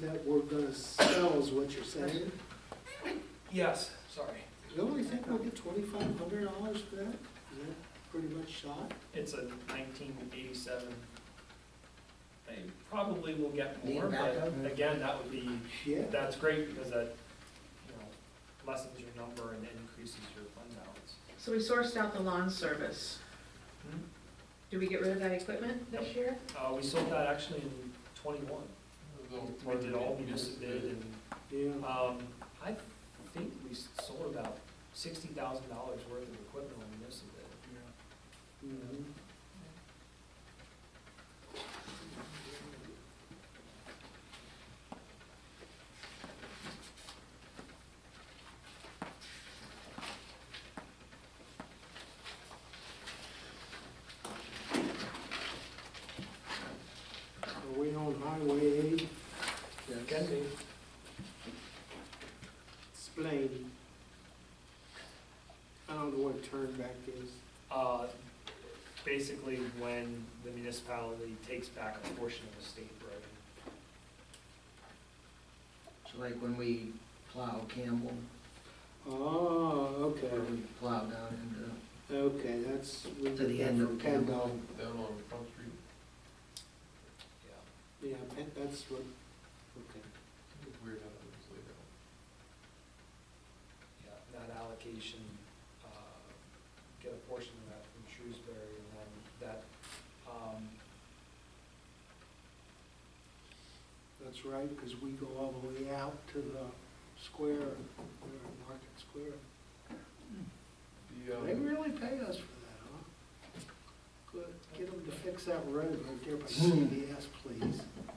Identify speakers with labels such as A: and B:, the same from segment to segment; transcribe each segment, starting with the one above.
A: that we're gonna sell is what you're saying?
B: Yes, sorry.
A: Don't we think we'll get twenty-five hundred dollars for that? Is that pretty much shot?
B: It's a nineteen eighty-seven. They probably will get
C: Need
B: more,
C: a
B: but
C: backup?
B: again, that would be,
A: Yeah.
B: that's great because that, you know, lessens your number and increases your fund balance.
D: So we sourced out the lawn service.
B: Hmm.
D: Do we get rid of that equipment this year?
B: Uh, we sold that actually in twenty-one. We did all municipal bid and
A: Yeah,
B: Um, I think we sold about sixty thousand dollars worth of equipment on this of
A: mhm. Are we on Highway eight?
B: it. Can be.
A: Explain. I don't know what turn back is.
B: Uh, basically when the municipality takes back a portion of the state road.
C: So like when we plow Campbell,
A: Oh, okay,
C: or we plow down
A: okay, that's. we
C: To the
A: did that
C: end
A: for
C: of
A: Kendall.
E: Down on Front Street.
B: Yeah.
A: Yeah, Pen- that's what, okay.
E: It's weird how that was laid out.
B: Yeah, that allocation, uh, get a portion of that from Shrewsbury and then that, um,
A: That's right, because we go all the way out to the square, uh, Market Square.
E: The, um,
A: They really paid us for that, huh? Good, get them to fix that road right there by CBS, please.
C: and, uh,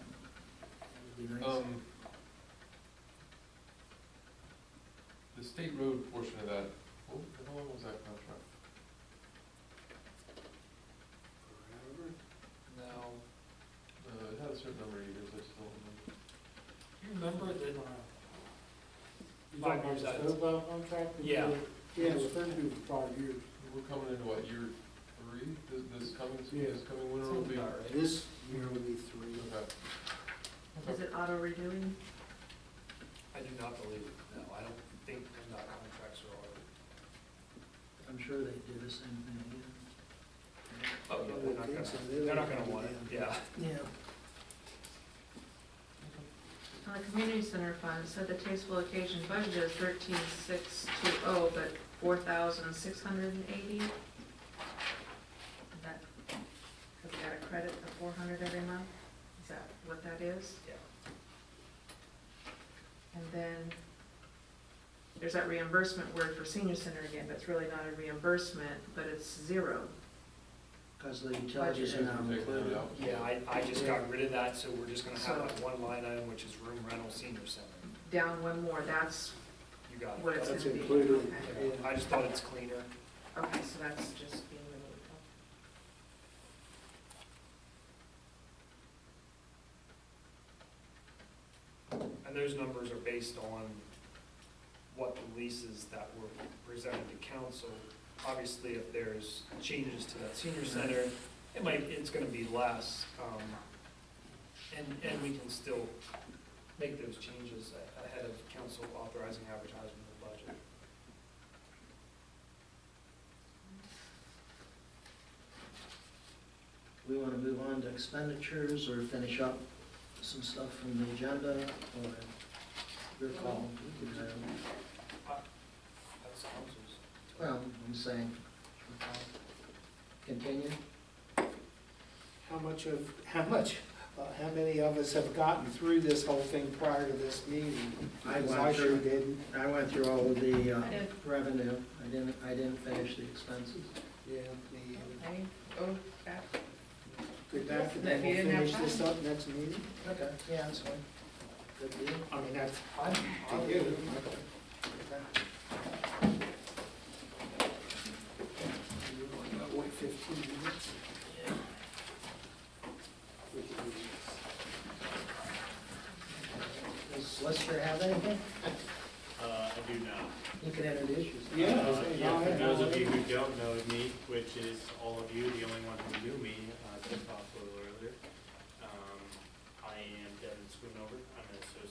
C: it'd be nice.
E: Um, the state road portion of that, oh, how long was that contract?
A: Forever.
B: now,
E: Uh, it had a certain number of years, I just don't remember.
B: you remember that,
F: You
B: Five
F: talking
B: years
F: about the
B: out.
F: snowplow contract?
B: Yeah.
A: Yeah,
F: It's been due for five years.
E: We're coming into what, year three, this, this coming,
F: Yeah.
E: this coming winter will be?
B: Sounds about right.
A: this year will be three.
E: Okay.
D: Is
E: Okay.
D: it auto renewing?
B: I do not believe, it. no, I don't think PennDOT contracts are ordered.
C: I'm sure they do the same thing again.
B: Oh, yeah, they're not gonna, they're not gonna want it, yeah.
C: Yeah.
D: On Uh, the community center fund, it said the tasteful occasion budget is thirteen six two oh, but four thousand six hundred and eighty? That, have we got a credit of four hundred every month? Is that what that is?
B: Yeah.
D: And then there's that reimbursement word for senior center again, but it's really not a reimbursement, but it's zero.
C: Cause the utilities are not
E: Budget.
C: included.
B: Yeah, I, I just got rid of that, so we're just gonna have
D: So-
B: like one line item, which is room rental senior center.
D: Down one more, that's
B: You got it.
D: what it's
A: That's
D: gonna be.
A: included.
D: Okay.
B: Yeah, I just thought it's cleaner.
D: Okay, so that's just being removed.
B: And those numbers are based on what the leases that were presented to council. Obviously, if there's changes to that senior center, it might, it's gonna be less. um, And, and we can still make those changes a- ahead of council authorizing advertisement of the budget.
C: We wanna move on to expenditures or finish up some stuff from the agenda or your call. you know.
B: That's council's.
C: Well, I'm saying, continue.
A: How much of, how much, uh, how many of us have gotten through this whole thing prior to this meeting?
C: I
A: Because
C: went
A: sure
C: through,
A: didn't.
C: I went through all of the uh,
D: I did.
C: revenue. I didn't, I didn't finish the expenses.
A: Yeah, me either.
D: Okay, oh, back.
A: Good back, and then
D: If you
A: we'll
D: didn't have
A: finish this
D: time.
A: up next meeting?
C: Okay, yeah, that's fine. Good deal.
A: I mean, that's
B: I'm,
A: to
B: I'm
A: you. You're only about, what, fifteen minutes? We can do this.
C: Does Lester have anything?
G: Uh, I do not.
C: You can introduce yourself.
A: Yeah,
G: Uh,
A: okay,
G: Yeah,
A: go
G: for
A: ahead.
G: those of you who don't know me, which is all of you, the only one who knew me, uh, since Bob a little earlier, um, I am Devin Schoonover.